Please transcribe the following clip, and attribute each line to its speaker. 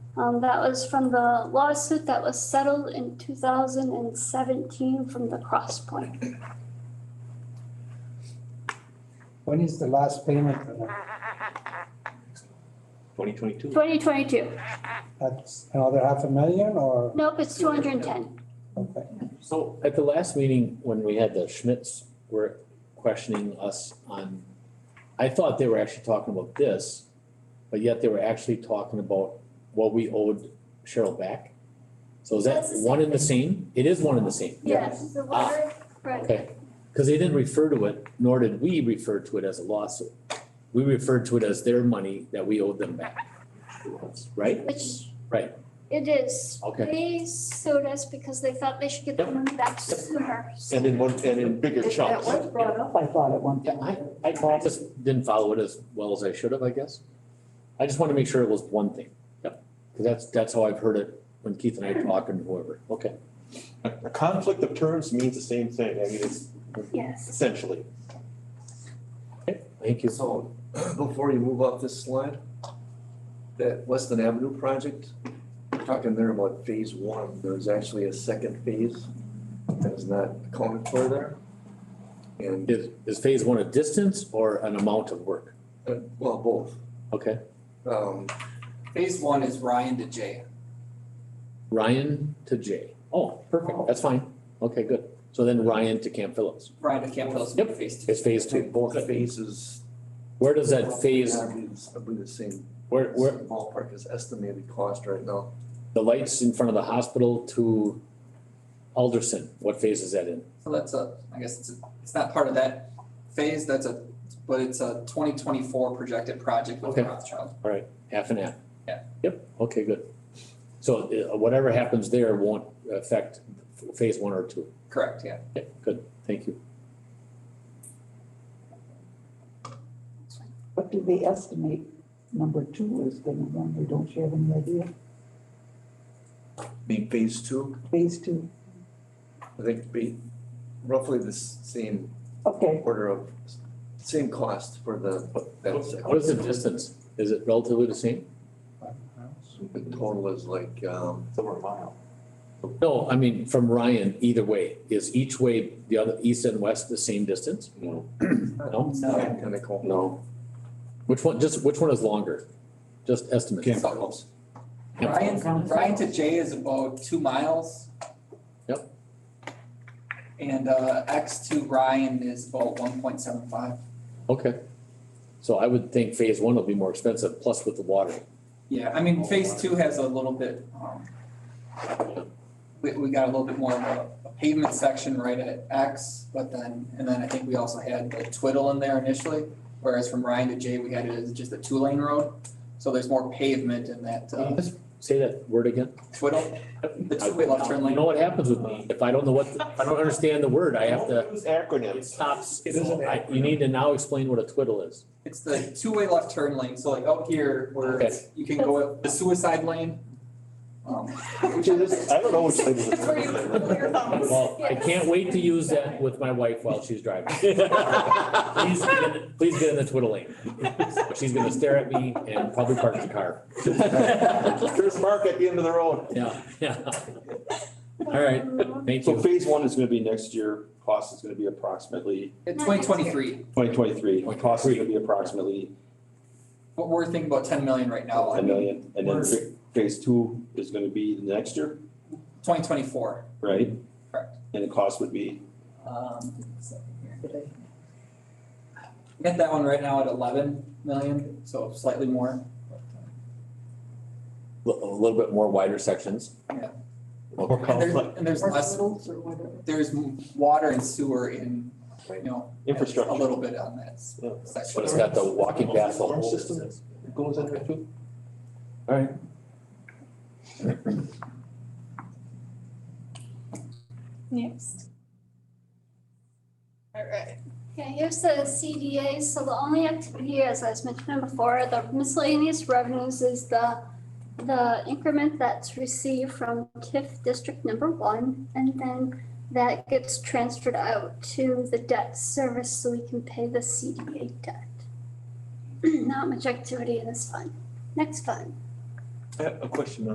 Speaker 1: Um, that was from the lawsuit that was settled in two thousand and seventeen from the Cross Point.
Speaker 2: When is the last payment? for that?
Speaker 3: Twenty twenty-two.
Speaker 1: Twenty twenty-two.
Speaker 2: That's another half a million or,
Speaker 1: Nope, it's two hundred and ten.
Speaker 2: okay,
Speaker 3: So at the last meeting, when we had the Schmitz, were questioning us on, I thought they were actually talking about this, but yet they were actually talking about what we owed Cheryl back. So is that
Speaker 4: That's the same
Speaker 3: one and the same? It is one and the same.
Speaker 1: Yes,
Speaker 4: The water,
Speaker 1: right.
Speaker 3: Ah, Okay, because they didn't refer to it, nor did we refer to it as a lawsuit. We referred to it as their money that we owed them back. Right?
Speaker 1: Which.
Speaker 3: Right.
Speaker 1: It is.
Speaker 3: Okay.
Speaker 1: They sued us because they thought they should get the
Speaker 3: Yep.
Speaker 1: money back sooner.
Speaker 3: And in one, and in bigger
Speaker 5: It- That was brought up, I thought, at one
Speaker 3: Yeah, I,
Speaker 5: time.
Speaker 3: I just didn't follow it as well as I should have, I guess. I just wanna make sure it was one thing. Yep. Cause that's, that's how I've heard it when Keith and I talk and whoever, okay.
Speaker 6: A conflict of terms means the same thing, I mean, it's
Speaker 1: Yes.
Speaker 6: essentially.
Speaker 3: Thank you.
Speaker 7: So before you move off this slide, that Weston Avenue project, we're talking there about phase one, there's actually a second phase that is not accounted for there. And,
Speaker 3: Is, is phase one a distance or an amount of work?
Speaker 7: uh, well, both.
Speaker 3: Okay,
Speaker 7: Um,
Speaker 8: Phase one is Ryan to Jay.
Speaker 3: Ryan to Jay. Oh, perfect, that's fine. Okay, good. So then Ryan to Camp Phillips
Speaker 8: Ryan to Camp Phillips,
Speaker 3: Yep.
Speaker 8: phase two.
Speaker 3: is phase two.
Speaker 7: both phases.
Speaker 3: Where does that phase,
Speaker 7: I believe it's- I believe the same
Speaker 3: where, where,
Speaker 7: ballpark is estimated cost right now.
Speaker 3: the lights in front of the hospital to Alderson, what phase is that in?
Speaker 8: So that's a, I guess it's, a- it's not part of that phase, that's a, but it's a twenty twenty-four projected project with
Speaker 3: Okay.
Speaker 8: Rothschild.
Speaker 3: Half and half?
Speaker 8: Yeah.
Speaker 3: Yep, okay, good. So uh, whatever happens there won't affect phase one or two.
Speaker 8: Correct, yeah.
Speaker 3: Okay, good, thank you.
Speaker 5: What do they estimate number two is gonna run, or don't you have any idea?
Speaker 7: Be phase two,
Speaker 5: Phase two,
Speaker 7: I think be roughly the s- same
Speaker 5: okay,
Speaker 7: order of, same cost for the, that second.
Speaker 3: What is the distance? Is it relatively the same?
Speaker 7: The total is like, um,
Speaker 6: It's over a mile.
Speaker 3: No, I mean, from Ryan, either way, is each way, the other, east and west, the same distance?
Speaker 6: No.
Speaker 3: No?
Speaker 7: it's not identical.
Speaker 6: No.
Speaker 3: Which one, just, which one is longer? Just estimates.
Speaker 6: Camp
Speaker 8: Phillips. Ryan,
Speaker 5: Camp
Speaker 8: Ryan to Jay is about two miles.
Speaker 3: Yep.
Speaker 8: And uh, X to Ryan is about one point seven five.
Speaker 3: Okay. So I would think phase one will be more expensive, plus with the water.
Speaker 8: Yeah, I mean, phase two has a little bit, um, we, we got a little bit more of a a pavement section right at X, but then, and then I think we also had the twiddle in there initially, whereas from Ryan to J, we had it as just a two-lane road, so there's more pavement in that,
Speaker 3: Can you
Speaker 8: uh,
Speaker 3: just Say that word again?
Speaker 8: twiddle, the two-way left turn
Speaker 3: You
Speaker 8: lane.
Speaker 3: know what happens with me, if I don't know what, if I don't understand the word, I have to,
Speaker 6: Don't use
Speaker 3: it
Speaker 6: acronyms.
Speaker 3: stops.
Speaker 6: It is an
Speaker 3: I- You need to now explain what a twiddle is.
Speaker 8: It's the two-way left turn lane, so like out here, where
Speaker 3: Okay.
Speaker 8: you can go the suicide lane. um,
Speaker 6: Which is, I don't know which thing
Speaker 4: It's where you put
Speaker 6: it
Speaker 4: your thumbs.
Speaker 3: Well, I
Speaker 4: Yes.
Speaker 3: can't wait to use that with my wife while she's driving. Please, get in- please get in the twiddle lane. She's gonna stare at me and probably park the car.
Speaker 6: is. There's Mark at the end of the road.
Speaker 3: Yeah, yeah. All right,
Speaker 1: Um,
Speaker 3: thank
Speaker 6: So
Speaker 3: you.
Speaker 6: phase one is gonna be next year, cost is gonna be approximately
Speaker 8: Twenty twenty-three,
Speaker 6: twenty twenty-three, cost is gonna be approximately
Speaker 8: what we're thinking about ten million right now,
Speaker 6: a million. And then fa- phase two is gonna be the next year,
Speaker 8: twenty twenty-four,
Speaker 6: right?
Speaker 8: Correct.
Speaker 6: And the cost would be,
Speaker 8: um, Get that one right now at eleven million, so slightly more.
Speaker 3: A little bit more wider sections.
Speaker 8: Yeah.
Speaker 3: Okay.
Speaker 8: And there's, and there's
Speaker 5: or
Speaker 8: less,
Speaker 5: totals or whatever.
Speaker 8: there's m- water and sewer in, you know, a
Speaker 6: Infrastructure.
Speaker 8: little bit on that s-
Speaker 6: Yeah.
Speaker 3: But
Speaker 8: section.
Speaker 3: it's got the walking path, the whole
Speaker 6: System.
Speaker 3: distance.
Speaker 6: goes under two.
Speaker 3: All right.
Speaker 4: Next. All right.
Speaker 1: Yeah, here's the CDA. So the only activity, as I was mentioning before, the miscellaneous revenues is the, the increment that's received from TIF District Number One. And then that gets transferred out to the debt service so we can pay the CDA debt. Not much activity in this fund. Next fund.
Speaker 7: I have a question